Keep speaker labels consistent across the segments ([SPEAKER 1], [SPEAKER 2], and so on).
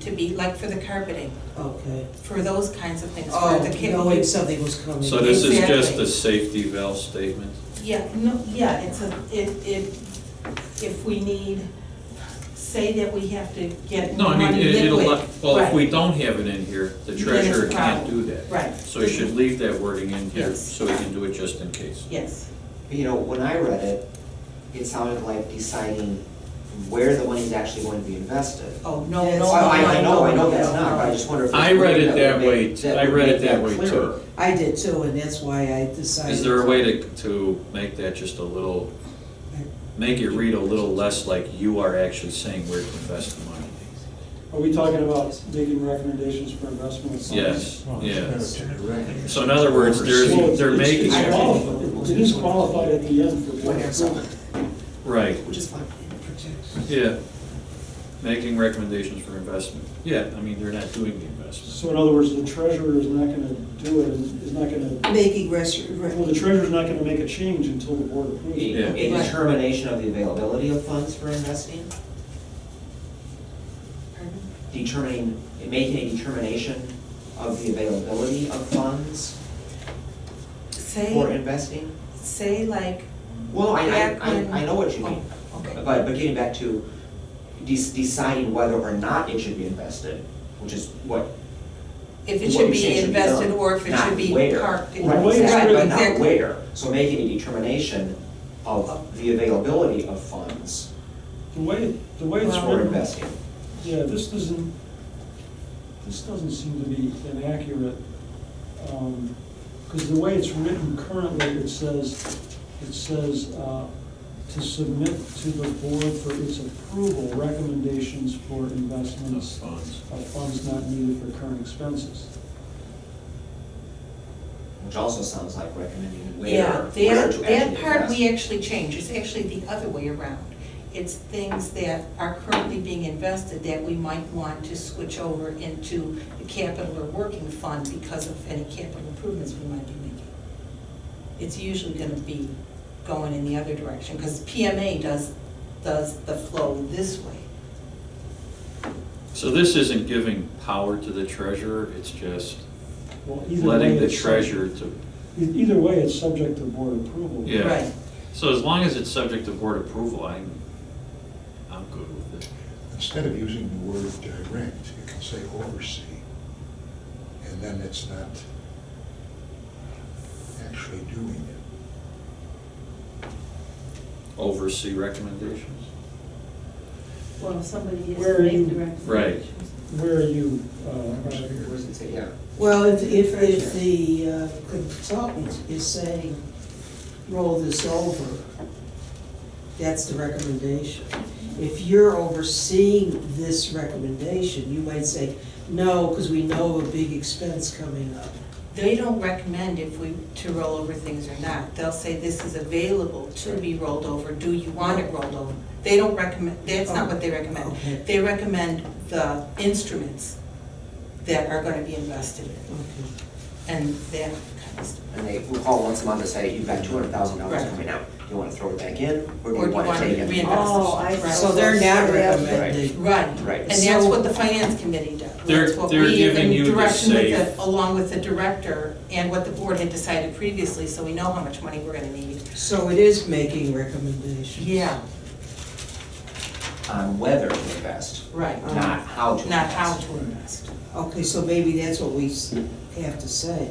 [SPEAKER 1] to be, like for the carpeting,
[SPEAKER 2] Okay.
[SPEAKER 1] for those kinds of things, for
[SPEAKER 2] Oh,
[SPEAKER 1] the kid.
[SPEAKER 2] knowing something was coming.
[SPEAKER 3] So this is just
[SPEAKER 1] Exactly.
[SPEAKER 3] a safety valve statement?
[SPEAKER 1] Yeah, no, yeah, it's a, it, it, if we need, say that we have to get
[SPEAKER 3] No, I mean,
[SPEAKER 1] money
[SPEAKER 3] it- it'll,
[SPEAKER 1] liquid,
[SPEAKER 3] let- well, if
[SPEAKER 1] right.
[SPEAKER 3] we don't have it in here, the
[SPEAKER 1] Then it's a
[SPEAKER 3] treasurer can't
[SPEAKER 1] problem.
[SPEAKER 3] do that.
[SPEAKER 1] Right.
[SPEAKER 3] So you should leave that wording in here,
[SPEAKER 1] Yes.
[SPEAKER 3] so we can do it just in case.
[SPEAKER 1] Yes,
[SPEAKER 4] You know, when I read it, it sounded like deciding where the money is actually going to be invested.
[SPEAKER 1] oh, no, no,
[SPEAKER 2] Yes.
[SPEAKER 1] no,
[SPEAKER 4] Well, I, I know, I know
[SPEAKER 1] no,
[SPEAKER 4] that's
[SPEAKER 1] no,
[SPEAKER 4] not,
[SPEAKER 1] no.
[SPEAKER 4] but I just wonder if.
[SPEAKER 3] I read it that
[SPEAKER 4] would
[SPEAKER 3] way,
[SPEAKER 4] make-
[SPEAKER 3] t- I
[SPEAKER 4] would
[SPEAKER 3] read it
[SPEAKER 4] make
[SPEAKER 3] that way
[SPEAKER 4] clearer.
[SPEAKER 3] too.
[SPEAKER 2] I did too, and that's why I decided.
[SPEAKER 3] Is there a way to, to make that just a little, make it read a little less like you are actually saying where to invest the money?
[SPEAKER 5] Are we talking about making recommendations for investment? funds?
[SPEAKER 3] Yes, yeah.
[SPEAKER 6] yes.
[SPEAKER 3] So in other words, there's,
[SPEAKER 5] Well,
[SPEAKER 3] they're
[SPEAKER 5] it's-
[SPEAKER 3] making,
[SPEAKER 5] it's
[SPEAKER 3] it
[SPEAKER 5] qualified. It is qualified at the end for
[SPEAKER 4] One
[SPEAKER 5] board
[SPEAKER 4] or
[SPEAKER 5] approval.
[SPEAKER 4] something,
[SPEAKER 3] right,
[SPEAKER 4] which is fine.
[SPEAKER 3] yeah. Making recommendations for investment. Yeah, I mean, they're not doing the investment.
[SPEAKER 5] So in other words, the treasurer is not gonna do it, is not gonna,
[SPEAKER 2] Making res- re-
[SPEAKER 5] well, the treasurer's not gonna make a change until the board approves
[SPEAKER 4] A
[SPEAKER 5] it.
[SPEAKER 3] Yeah.
[SPEAKER 4] a determination of the availability of funds for investing,
[SPEAKER 1] Pardon?
[SPEAKER 4] determining, making a determination of the availability of funds for
[SPEAKER 1] Say,
[SPEAKER 4] investing.
[SPEAKER 1] say like,
[SPEAKER 4] Well, Oh, I, I,
[SPEAKER 1] back when.
[SPEAKER 4] I I know what you mean.
[SPEAKER 1] Oh, Okay.
[SPEAKER 4] But, but getting back to de- deciding whether or not it should be invested, which is what,
[SPEAKER 1] If it should
[SPEAKER 4] what you're saying
[SPEAKER 1] be
[SPEAKER 4] should be done,
[SPEAKER 1] invested or if it
[SPEAKER 4] not
[SPEAKER 1] should be
[SPEAKER 4] where.
[SPEAKER 1] parked. in-
[SPEAKER 5] Right,
[SPEAKER 4] Right,
[SPEAKER 5] where,
[SPEAKER 1] Right,
[SPEAKER 4] exactly, but not
[SPEAKER 1] exactly.
[SPEAKER 4] where. So making a determination of the availability of funds
[SPEAKER 5] The way, the way it's
[SPEAKER 4] for
[SPEAKER 5] written,
[SPEAKER 4] investing.
[SPEAKER 5] yeah, this doesn't, this doesn't seem to be inaccurate. Because the way it's written currently, it says, it says, uh, to submit to the board for its approval recommendations for
[SPEAKER 3] Those
[SPEAKER 5] investments
[SPEAKER 3] funds.
[SPEAKER 5] of funds not needed for current expenses.
[SPEAKER 4] Which also sounds like recommending where,
[SPEAKER 1] Yeah,
[SPEAKER 4] where
[SPEAKER 1] that,
[SPEAKER 4] to
[SPEAKER 1] that
[SPEAKER 4] actually
[SPEAKER 1] part we
[SPEAKER 4] invest.
[SPEAKER 1] actually change, it's actually the other way around. It's things that are currently being invested that we might want to switch over into the capital or working fund because of any capital improvements we might be making. It's usually gonna be going in the other direction, because PMA does, does the flow this way.
[SPEAKER 3] So this isn't giving power to the treasurer, it's just
[SPEAKER 5] Well, either
[SPEAKER 3] letting
[SPEAKER 5] way,
[SPEAKER 3] the
[SPEAKER 5] it's-
[SPEAKER 3] treasurer to,
[SPEAKER 5] e- Either way, it's subject to board approval.
[SPEAKER 3] Yeah.
[SPEAKER 1] Right.
[SPEAKER 3] so as long as it's subject to board approval, I'm, I'm good with it.
[SPEAKER 6] Instead of using the word direct, you can say oversee, and then it's not actually doing it.
[SPEAKER 3] Oversee recommendations?
[SPEAKER 7] Well, if somebody is
[SPEAKER 5] Where are you-
[SPEAKER 7] making direct.
[SPEAKER 3] Right.
[SPEAKER 7] recommendations.
[SPEAKER 5] Where are you, uh,
[SPEAKER 4] Where does it say, yeah.
[SPEAKER 2] Well, if, if, if the uh, consultant is saying, roll this over, that's the recommendation. If you're overseeing this recommendation, you might say, no, because we know of a big expense coming up.
[SPEAKER 1] They don't recommend if we, to roll over things or not. They'll say this is available to be rolled over, do you want it rolled over? They don't recommend, that's not what they recommend.
[SPEAKER 2] Okay.
[SPEAKER 1] They recommend the instruments that are gonna be invested in,
[SPEAKER 2] Okay.
[SPEAKER 1] and that kind of stuff.
[SPEAKER 4] And they will call once a month and say, you've got two hundred thousand dollars
[SPEAKER 1] Right.
[SPEAKER 4] coming out, do you wanna throw it back in, or do
[SPEAKER 1] Or
[SPEAKER 4] you
[SPEAKER 1] do you
[SPEAKER 4] wanna
[SPEAKER 1] wanna
[SPEAKER 4] take it?
[SPEAKER 1] reinvest?
[SPEAKER 7] Oh, I.
[SPEAKER 1] Right.
[SPEAKER 2] So they're not recommending.
[SPEAKER 1] Right.
[SPEAKER 4] Right.
[SPEAKER 1] And that's
[SPEAKER 2] So-
[SPEAKER 1] what the finance committee does.
[SPEAKER 3] They're-
[SPEAKER 1] That's what
[SPEAKER 3] they're
[SPEAKER 1] we,
[SPEAKER 3] giving
[SPEAKER 1] in
[SPEAKER 3] you the
[SPEAKER 1] direction with
[SPEAKER 3] safe-
[SPEAKER 1] the, along with the director and what the board had decided previously, so we know how much money we're gonna need.
[SPEAKER 2] So it is making recommendations.
[SPEAKER 1] Yeah,
[SPEAKER 4] On whether to invest,
[SPEAKER 1] right, um,
[SPEAKER 4] not how to invest.
[SPEAKER 1] not how to invest.
[SPEAKER 2] Okay, so maybe that's what we s- have to say,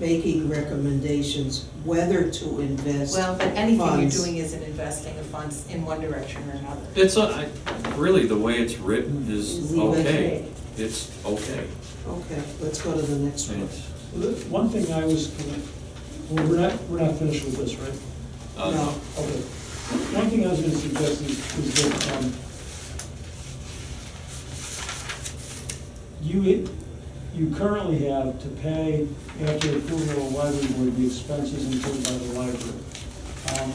[SPEAKER 2] making recommendations whether to invest.
[SPEAKER 1] Well, but anything you're
[SPEAKER 2] funds.
[SPEAKER 1] doing isn't investing of funds in one direction or another.
[SPEAKER 3] It's, a- I- really, the way it's written is
[SPEAKER 2] Is the way
[SPEAKER 3] okay. It's okay.
[SPEAKER 2] Okay, let's go to the next one.
[SPEAKER 3] It's,
[SPEAKER 5] One thing I was, gonna- well, we're not, we're not finished with this, right?
[SPEAKER 3] uh,
[SPEAKER 2] No,
[SPEAKER 5] Okay. One thing I was gonna suggest is, is that, um, you, you currently have to pay, after approval of library board, the expenses incurred by the library. Um,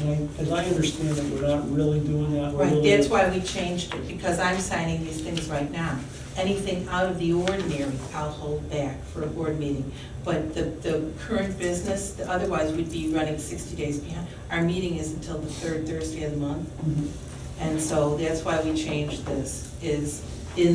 [SPEAKER 5] And I, as I understand it, we're not really doing that. We're
[SPEAKER 1] Right,
[SPEAKER 5] really-
[SPEAKER 1] that's why we changed it, because I'm signing these things right now. Anything out of the ordinary, I'll hold back for a board meeting. But the, the current business, otherwise we'd be running sixty days behind. Our meeting is until the third Thursday of the month,
[SPEAKER 5] Mhm.
[SPEAKER 1] and so that's why we changed this, is